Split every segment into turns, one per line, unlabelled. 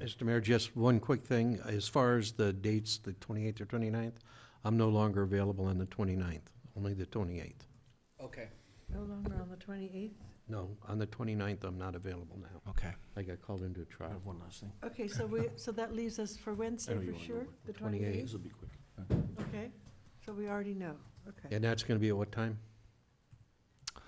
Mr. Mayor, just one quick thing. As far as the dates, the 28th or 29th, I'm no longer available on the 29th, only the 28th.
Okay.
No longer on the 28th?
No, on the 29th, I'm not available now.
Okay.
I got called into a
I have
trial.
one last thing.
Okay, so we, so that leaves us for Wednesday
Anyway,
for
you wanna
sure,
know what-
the
28th.
28th?
This will be quick.
Okay, so we already know, okay.
And that's going to be at what time?
I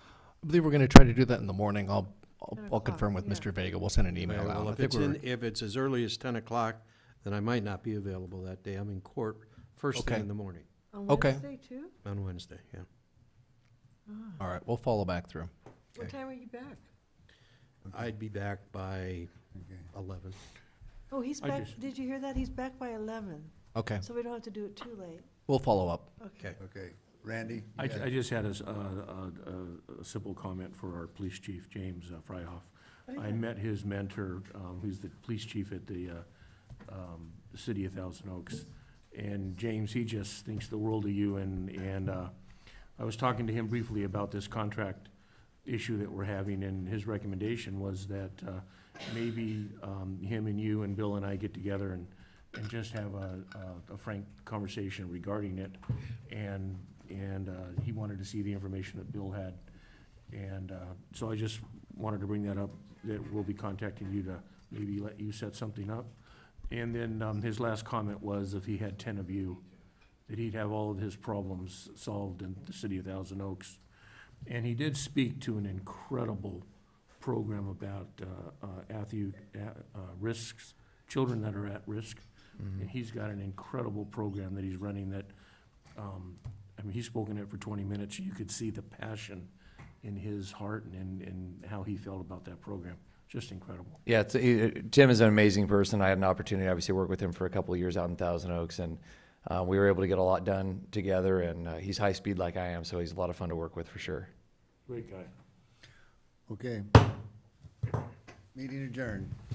believe we're going to try to do that in the morning. I'll, I'll,
Ten
I'll
o'clock,
confirm with
yeah.
Mr. Vega. We'll send an email
Well,
out. I
if
think
it's in,
we're-
if it's as early as 10 o'clock, then I might not be available that day. I'm in court first thing
Okay.
in the morning,
On
Okay.
Wednesday too?
on Wednesday, yeah.
Ah.
All right, we'll follow back through.
What
Okay.
time are you back?
I'd be back by 11.
Oh, he's
I
back,
just-
did you hear that? He's back by 11,
Okay,
so we don't have to do it too late.
we'll follow up.
Okay.
Okay, Randy?
I, ju- I just had a, s- a- a- a- a simple comment for our police chief, James uh, Fryhoff.
Oh,
I
yeah.
met his mentor, um, who's the police chief at the, uh, um, the city of Thousand Oaks. And James, he just thinks the world of you and, and, uh, I was talking to him briefly about this contract issue that we're having and his recommendation was that, uh, maybe, um, him and you and Bill and I get together and, and just have a, a- a frank conversation regarding it. And, and, uh, he wanted to see the information that Bill had. And, uh, so I just wanted to bring that up, that we'll be contacting you to maybe let you set something up. And then, um, his last comment was if he had ten of you, that he'd have all of his problems solved in the city of Thousand Oaks. And he did speak to an incredible program about, uh, uh, athu- uh, uh, risks, children that are at risk. And he's got an incredible program that he's running that, um, I mean, he spoke in it for twenty minutes. You could see the passion in his heart and, and how he felt about that program. Just incredible.
Yeah, it's, uh, Jim is an amazing person. I had an opportunity, obviously, to work with him for a couple of years out in Thousand Oaks, and uh, we were able to get a lot done together. And uh, he's high speed like I am, so he's a lot of fun to work with for sure.
Great guy.
Okay. Meeting adjourned.